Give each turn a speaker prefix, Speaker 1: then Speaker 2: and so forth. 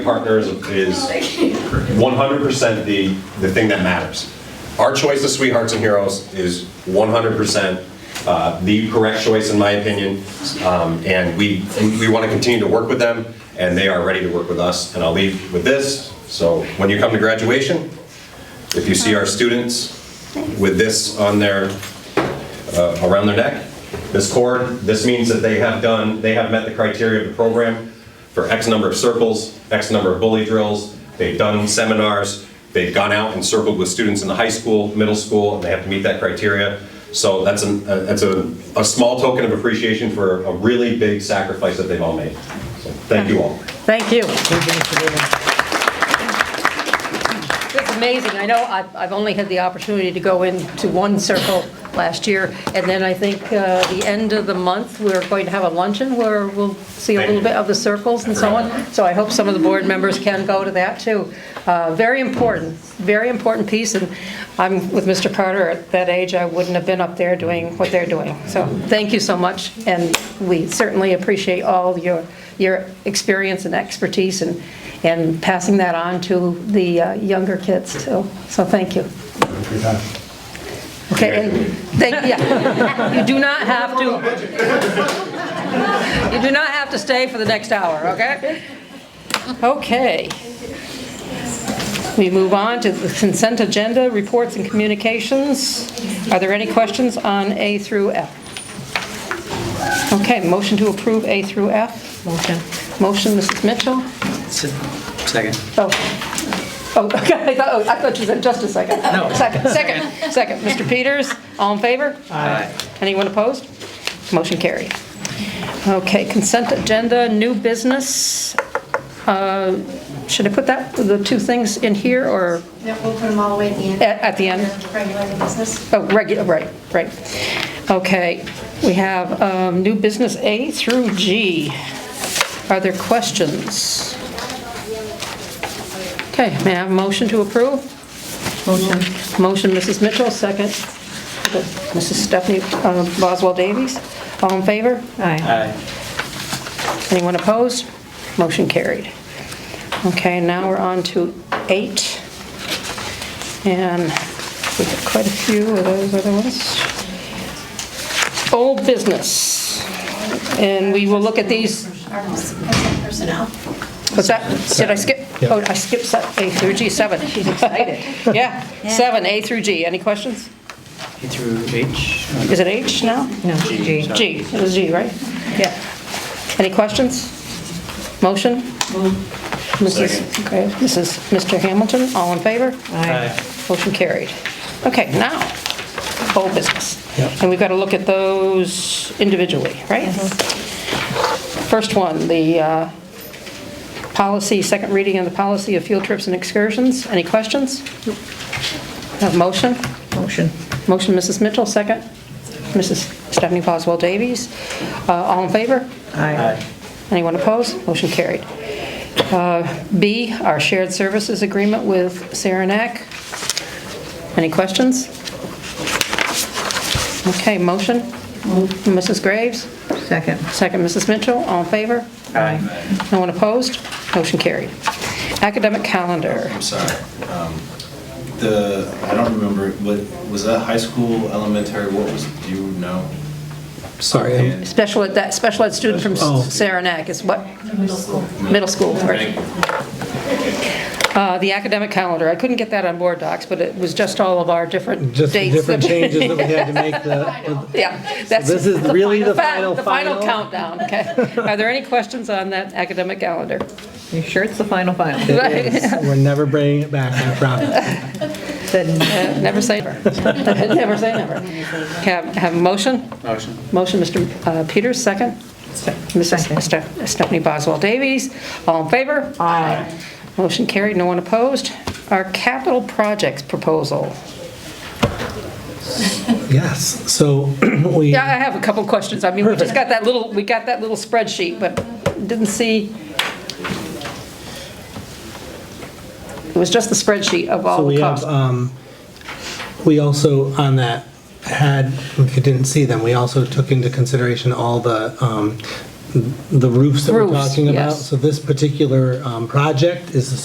Speaker 1: partners is 100% the, the thing that matters. Our choice of Sweethearts and Heroes is 100% uh, the correct choice, in my opinion, Um, and we, we want to continue to work with them, and they are ready to work with us, and I'll leave with this, so when you come to graduation, if you see our students with this on their, uh, around their neck, this cord, this means that they have done, they have met the criteria of the program for X number of circles, X number of bully drills, they've done seminars, they've gone out and circled with students in the high school, middle school, and they have to meet that criteria. So that's a, that's a, a small token of appreciation for a really big sacrifice that they've all made. So Thank you all.
Speaker 2: Thank you. It's amazing. I know I've I've only had the opportunity to go into one circle last year, and then I think uh, the end of the month, we're going to have a luncheon where we'll see a
Speaker 1: Thank
Speaker 2: little
Speaker 1: you.
Speaker 2: bit of the circles and so on. So I hope some of the board members can go to that, too. Uh, Very important, very important piece, and I'm with Mr. Carter. At that age, I wouldn't have been up there doing what they're doing. So thank you so much, and we certainly appreciate all your, your experience and expertise and, and passing that on to the uh, younger kids, too. So thank you. Okay, and, thank, yeah, you do not have to, you do not have to stay for the next hour, okay? Okay. We move on to the consent agenda, reports and communications. Are there any questions on A through F? Okay, motion to approve A through F? Motion. Motion, Mrs. Mitchell?
Speaker 3: Second.
Speaker 2: Oh, oh, okay, I thought, oh, I thought you said just a second.
Speaker 3: No.
Speaker 2: Second, second, second. Mr. Peters, all in favor?
Speaker 3: Aye.
Speaker 2: Anyone opposed? Motion carried. Okay, consent agenda, new business. Uh, Should I put that, the two things in here, or,
Speaker 4: Yeah, we'll put them all away at the end.
Speaker 2: At- at the end?
Speaker 4: Regular business.
Speaker 2: oh, regular, right, right. Okay, we have um, new business A through G. Are there questions? Okay, may I have a motion to approve? Motion. Motion, Mrs. Mitchell, second. Mrs. Stephanie uh, Boswell Davies, all in favor? Aye.
Speaker 3: Aye.
Speaker 2: Anyone opposed? Motion carried. Okay, now we're on to eight. And we got quite a few of those other ones. Old business. And we will look at these,
Speaker 4: Our consent personnel.
Speaker 2: what's that? Did I skip? Oh, I skipped se- A through G, seven. She's excited. Yeah, seven, A through G. Any questions?
Speaker 3: A through H? Oh, no.
Speaker 2: Is it H now? No.
Speaker 3: G. sorry.
Speaker 2: G, it was G, right? Yeah. Any questions? Motion? Mrs.
Speaker 3: Second.
Speaker 2: Okay, Mrs. Mr. Hamilton, all in favor?
Speaker 3: Aye.
Speaker 2: Motion carried. Okay, now, whole business. And we've got to look at those individually, right? First one, the uh, policy, second reading on the policy of field trips and excursions. Any questions? Have a motion?
Speaker 5: Motion.
Speaker 2: Motion, Mrs. Mitchell, second. Mrs. Stephanie Boswell Davies. Uh, All in favor?
Speaker 3: Aye.
Speaker 2: Anyone opposed? Motion carried. Uh, B, our shared services agreement with Saranac. Any questions? Okay, motion? Mrs. Graves?
Speaker 5: Second.
Speaker 2: Second, Mrs. Mitchell, all in favor?
Speaker 5: Aye.
Speaker 2: No one opposed? Motion carried. Academic calendar.
Speaker 6: I'm sorry. Um, The, I don't remember, but was that high school, elementary, what was, do you know?
Speaker 7: Sorry, I'm-
Speaker 2: Special ed, that special ed student from
Speaker 7: Oh.
Speaker 2: Saranac is what? Middle school. right. Uh, The academic calendar, I couldn't get that on board docs, but it was just all of our different dates.
Speaker 7: just the different
Speaker 2: that-
Speaker 7: changes that we had to make the,
Speaker 2: Yeah. that's-
Speaker 7: this is
Speaker 2: the
Speaker 7: really the
Speaker 2: fa-
Speaker 7: final,
Speaker 2: The final
Speaker 7: final?
Speaker 2: countdown, okay. Are there any questions on that academic calendar?
Speaker 5: You sure it's the final final?
Speaker 2: Right.
Speaker 7: we're never bringing it back, I promise.
Speaker 5: Then
Speaker 2: Uh, Never say never. Never say never. Have have a motion?
Speaker 3: Motion.
Speaker 2: Motion, Mr. uh, Peters, second. Mrs.
Speaker 5: Second.
Speaker 2: Ste- Stephanie Boswell Davies, all in favor? Aye. Motion carried, no one opposed. Our capital projects proposal.
Speaker 7: Yes, so we,
Speaker 2: Yeah, I have a couple questions. I mean, we just got that little, we got that little spreadsheet, but didn't see. It was just the spreadsheet of
Speaker 7: so
Speaker 2: all
Speaker 7: we
Speaker 2: the
Speaker 7: have,
Speaker 2: costs.
Speaker 7: um, we also on that had, if you didn't see them, we also took into consideration all the, um, the roofs that we're
Speaker 2: Roofs,
Speaker 7: talking about.
Speaker 2: yes.
Speaker 7: So this particular um, project is the